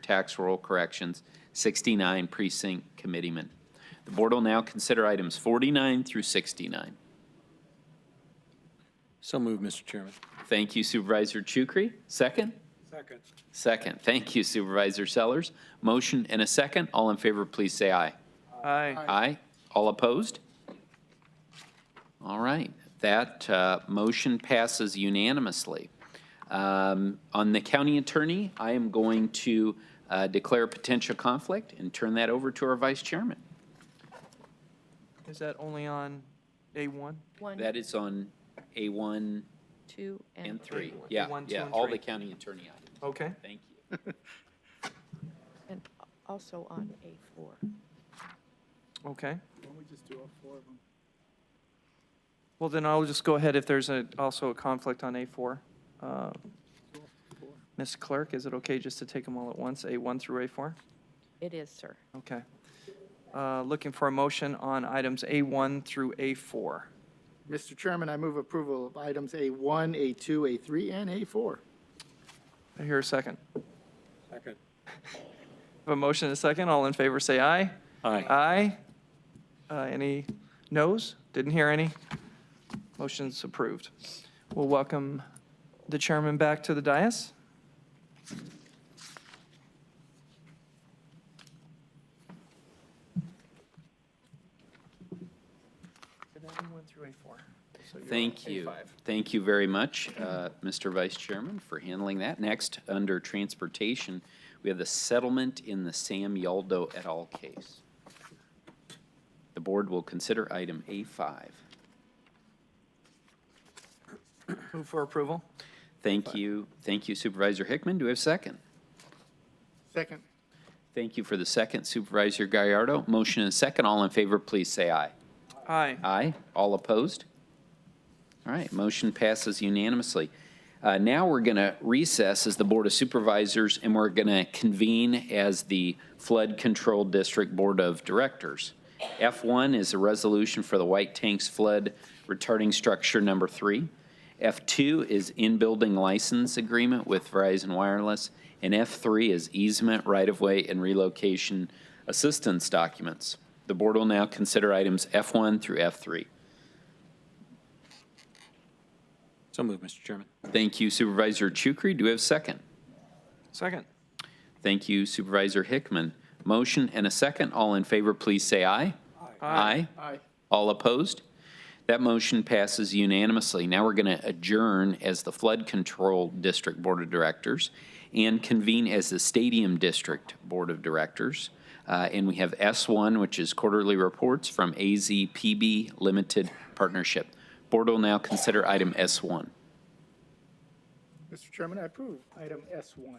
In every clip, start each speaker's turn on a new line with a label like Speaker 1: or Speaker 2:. Speaker 1: tax roll corrections, 69 precinct committeemen. The board will now consider items 49 through 69.
Speaker 2: So moved, Mr. Chairman.
Speaker 1: Thank you Supervisor Chukri. Second?
Speaker 3: Second.
Speaker 1: Second. Thank you Supervisor Sellers. Motion and a second. All in favor, please say aye.
Speaker 4: Aye.
Speaker 1: Aye. All opposed? All right, that uh, motion passes unanimously. Um, On the county attorney, I am going to uh, declare a potential conflict and turn that over to our vice chairman.
Speaker 4: Is that only on A1?
Speaker 1: That is on A1
Speaker 5: two,
Speaker 1: and 3. Yeah,
Speaker 4: A1, two,
Speaker 1: yeah,
Speaker 4: and
Speaker 1: all the
Speaker 4: three.
Speaker 1: county attorney items.
Speaker 4: Okay.
Speaker 1: Thank you.
Speaker 5: and also on A4.
Speaker 4: Okay.
Speaker 3: Why don't we just do all four of them?
Speaker 4: Well, then I'll just go ahead if there's a, also a conflict on A4. Uh, Ms. Clerk, is it okay just to take them all at once, A1 through A4?
Speaker 5: It is, sir.
Speaker 4: Okay. Uh, Looking for a motion on items A1 through A4.
Speaker 6: Mr. Chairman, I move approval of items A1, A2, A3, and A4.
Speaker 4: I hear a second.
Speaker 3: Second.
Speaker 4: Have a motion and a second. All in favor, say aye.
Speaker 2: Aye.
Speaker 4: Aye. Uh, Any noes? Didn't hear any. Motion's approved. We'll welcome the chairman back to the dais.
Speaker 1: Thank you. Thank you very much, uh, Mr. Vice Chairman, for handling that. Next, under Transportation, we have the settlement in the Sam Yaldo et al. case. The board will consider item A5.
Speaker 4: Move for approval.
Speaker 1: Thank you, thank you Supervisor Hickman. Do we have a second?
Speaker 6: Second.
Speaker 1: Thank you for the second Supervisor Gallardo. Motion and second. All in favor, please say aye.
Speaker 4: Aye.
Speaker 1: Aye. All opposed? All right, motion passes unanimously. Uh, Now we're going to recess as the Board of Supervisors, and we're going to convene as the Flood Control District Board of Directors. F1 is a resolution for the White Tanks Flood Retarding Structure Number Three. F2 is in-building license agreement with Verizon Wireless, and F3 is easement, right-of-way, and relocation assistance documents. The board will now consider items F1 through F3.
Speaker 2: So moved, Mr. Chairman.
Speaker 1: Thank you Supervisor Chukri. Do we have a second?
Speaker 4: Second.
Speaker 1: Thank you Supervisor Hickman. Motion and a second. All in favor, please say aye. Aye.
Speaker 6: Aye.
Speaker 1: All opposed? That motion passes unanimously. Now we're going to adjourn as the Flood Control District Board of Directors and convene as the Stadium District Board of Directors. Uh, And we have S1, which is quarterly reports from AZPB Limited Partnership. Board will now consider item S1.
Speaker 6: Mr. Chairman, I approve item S1.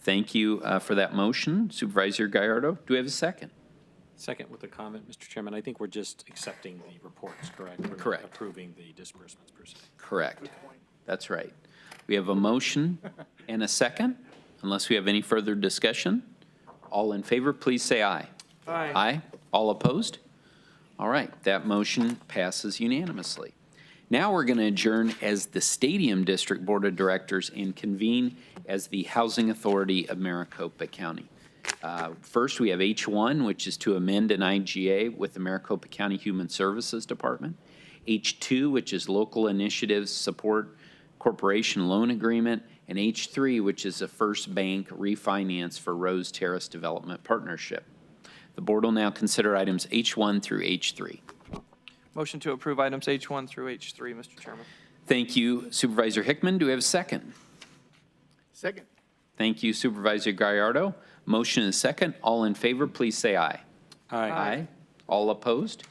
Speaker 1: Thank you uh, for that motion. Supervisor Gallardo, do we have a second?
Speaker 2: Second with a comment, Mr. Chairman, I think we're just accepting the reports, correct? We're not
Speaker 1: Correct.
Speaker 2: Approving the disbursements per se.
Speaker 1: Correct. That's right. We have a motion and a second, unless we have any further discussion. All in favor, please say aye. Aye. All opposed? All right, that motion passes unanimously. Now we're going to adjourn as the Stadium District Board of Directors and convene as the Housing Authority of Maricopa County. Uh, First, we have H1, which is to amend an IGA with the Maricopa County Human Services Department. H2, which is Local Initiatives Support Corporation Loan Agreement. And H3, which is a First Bank refinance for Rose Terrace Development Partnership. The board will now consider items H1 through H3.
Speaker 4: Motion to approve items H1 through H3, Mr. Chairman.
Speaker 1: Thank you Supervisor Hickman. Do we have a second?
Speaker 6: Second.
Speaker 1: Thank you Supervisor Gallardo. Motion and second. All in favor, please say aye. All opposed?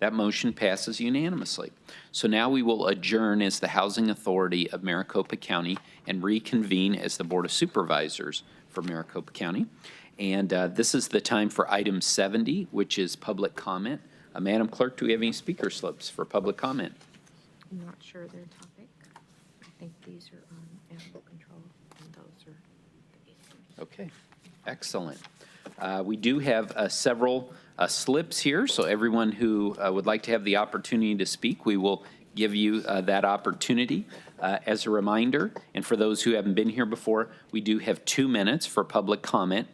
Speaker 1: That motion passes unanimously. So now we will adjourn as the Housing Authority of Maricopa County and reconvene as the Board of Supervisors for Maricopa County. And uh, this is the time for item 70, which is public comment. Uh, Madam Clerk, do we have any speaker slips for public comment?
Speaker 5: I'm not sure of their topic. I think these are on animal control, and those are the easement.
Speaker 1: Okay, excellent. Uh, We do have uh, several uh, slips here, so everyone who uh, would like to have the opportunity to speak, we will give you uh, that opportunity. Uh, As a reminder, and for those who haven't been here before, we do have two minutes for public comment